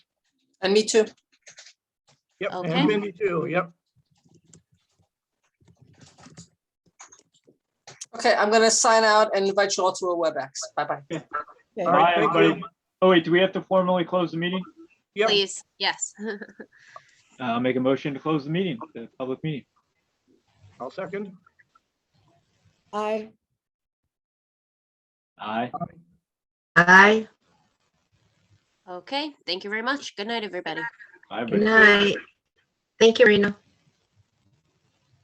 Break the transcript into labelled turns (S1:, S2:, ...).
S1: And me too.
S2: Yep,
S3: Okay.
S2: and Mindy too, yep.
S1: Okay, I'm gonna sign out and invite you all to a WebEx. Bye-bye.
S2: All right,
S4: Bye,
S2: thank
S4: everybody.
S2: you.
S4: Oh, wait, do we have to formally close the meeting?
S2: Yep,
S3: Please, yes.
S4: Uh, make a motion to close the meeting, the public meeting.
S2: I'll second.
S5: Aye.
S4: Aye.
S6: Aye,
S3: Okay, thank you very much. Good night, everybody.
S4: Aye,
S6: good
S4: but
S6: night. Thank you, Rena.